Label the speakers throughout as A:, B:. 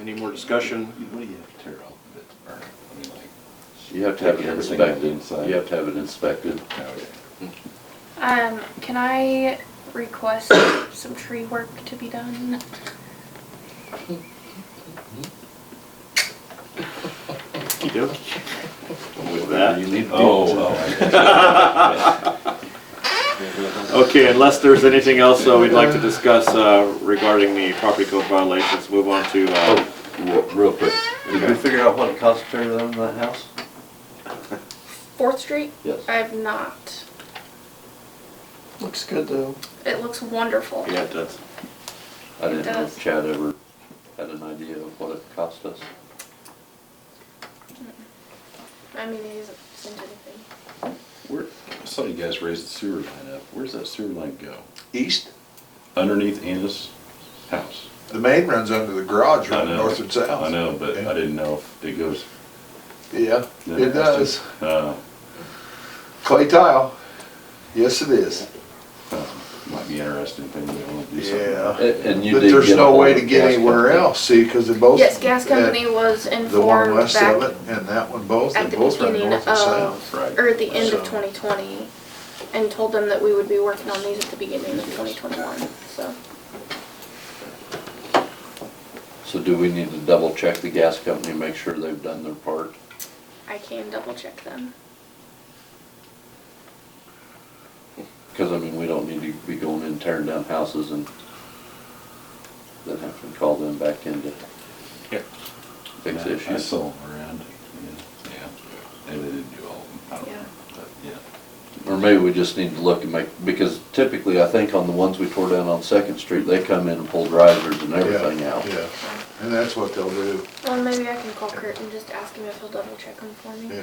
A: Any more discussion?
B: What do you have to tear out that burn? I mean, like,
C: You have to have it
B: Take everything out
C: inspected,
B: inside.
C: you have to have it inspected.
B: okay.
D: Um, can I request some tree work to be done?
A: You do? With
C: Whatever
A: that.
C: You need to do.
B: Oh, well.
A: Okay, unless there's anything else uh, we'd like to discuss uh, regarding the property code violations, move on to, uh,
C: Oh, real- real quick, did we
A: Okay.
C: figure out what it cost to tear down that house?
D: Fourth Street?
C: Yes.
D: I have not.
E: Looks good though.
D: It looks wonderful.
A: yeah, it does.
C: I didn't know
D: does.
C: if Chad ever had an idea of what it cost us.
D: I mean, it isn't isn't anything.
B: Where, I saw you guys raise the sewer line up. Where's that sewer line go?
F: East,
B: Underneath Anna's house.
F: the main runs under the garage,
B: I
F: running
B: know.
F: north and south.
B: I know, but I didn't know if it goes.
F: Yeah,
B: then has
F: it does.
B: to- Uh,
F: Clay tile. Yes, it is.
B: might be interesting thing we want to do something.
F: Yeah.
C: A- And you
F: But
C: did
F: there's
C: get
F: no
C: ahold
F: way
C: of
F: to get
C: gas
F: anywhere
C: company.
F: else, see, because they both.
D: Yes, gas company
F: uh,
D: was
F: The one
D: informed
F: west
D: back
F: of it and that one both, they
D: at the
F: both run
D: beginning
F: north and
D: of,
F: south.
B: right.
D: or at the end of
F: So-
D: 2020, and told them that we would be working on these at the beginning of 2021, so.
C: So do we need to double check the gas company, and make sure they've done their part?
D: I can double check them.
C: Because I mean, we don't need to be going in and tearing down houses and then having to call them back in to
A: Yeah.
C: fix
B: Yeah, I
C: issues.
B: saw them around. Yeah. Yeah. Maybe they didn't do all of them. I don't
D: Yeah.
B: know. But yeah.
C: Or maybe we just need to look and make, because typically I think on the ones we tore down on Second Street, they come in and pull risers and everything
F: Yeah,
C: out.
F: Yeah, and that's what they'll do,
D: Well, maybe I can call Kurt and just ask him if he'll double check them for me.
F: yeah.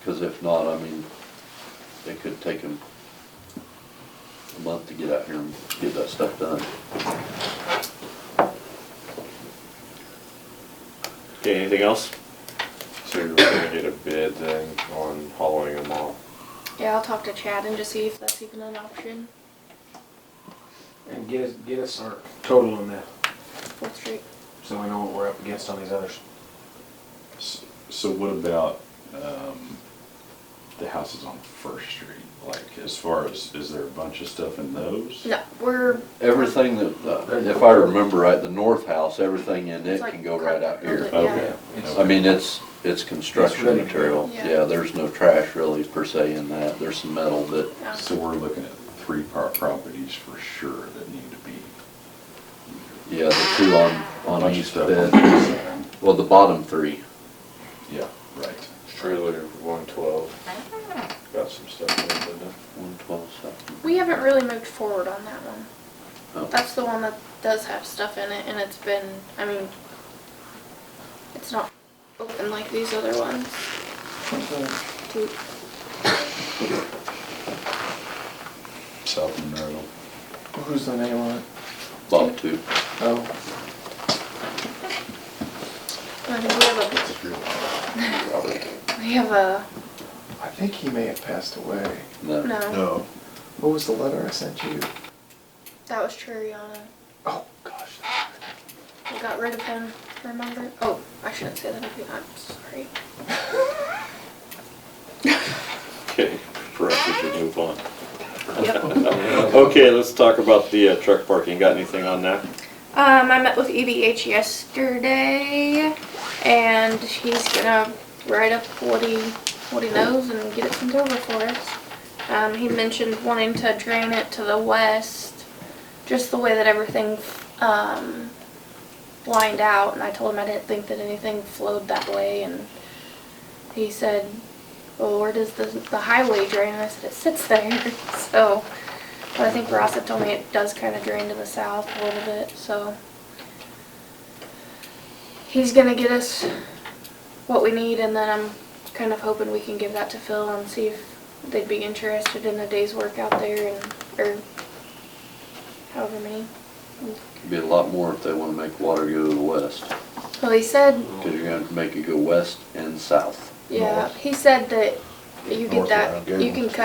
C: Because if not, I mean, it could take them a month to get out here and get that stuff done.
A: Okay, anything else?
G: So you're gonna get a bid then on hollowing them all?
D: Yeah, I'll talk to Chad and just see if that's even an option.
H: And get us, get us our total on that,
D: Fourth Street.
H: so we know what we're up against on these others.
B: S- So what about um, the houses on First Street? Like, as far as, is there a bunch of stuff in those?
D: No, we're
C: Everything that, uh, if I remember right, the north house, everything in it
D: It's like
C: can go right out here.
D: concrete,
B: Okay.
H: It's-
C: I mean, it's, it's construction
H: It's ready.
C: material.
D: Yeah.
C: Yeah, there's no trash really per se in that. There's some metal, but
D: yeah.
B: So we're looking at three par- properties for sure that need to be.
C: yeah, the two on, on
B: bunch of
C: East
B: stuff
C: Bed.
B: this end.
C: Well, the bottom three.
B: Yeah, right.
G: We're looking for one twelve. Got some stuff in there, didn't it?
C: One twelve seven.
D: we haven't really moved forward on that one.
C: Oh.
D: That's the one that does have stuff in it, and it's been, I mean, it's not open like these other ones. Do-
B: South Monroe.
E: Who's the name on it?
C: Bottom two.
E: Oh,
D: I mean, we have
C: Robert.
D: a, we have a,
E: I think he may have passed away.
C: No.
D: no,
F: No,
E: What was the letter I sent you?
D: that was Churiana.
E: Oh, gosh.
D: We got rid of him, remember? Oh, I shouldn't say that, again. I'm sorry.
A: Okay, perhaps we should move on.
D: Yep.
A: Okay, let's talk about the uh, truck parking. Got anything on that?
D: Um, I met with EBH yesterday, and he's gonna write up what he what he knows and get it sent over for us. Um, he mentioned wanting to drain it to the west, just the way that everything um, lined out. And I told him I didn't think that anything flowed that way, and he said, "Well, where does the the highway drain?" And I said, "It sits there." so. But I think Ross had told me it does kind of drain to the south a little bit, so. He's gonna get us what we need and then I'm kind of hoping we can give that to Phil and see if they'd be interested in a day's work out there and, or however many.
C: Could be a lot more if they wanna make water go to the west.
D: Well, he said,
C: Cause you're gonna have to make it go west and south.
D: yeah, he said that you get
F: North
D: that,
F: around
D: you can cut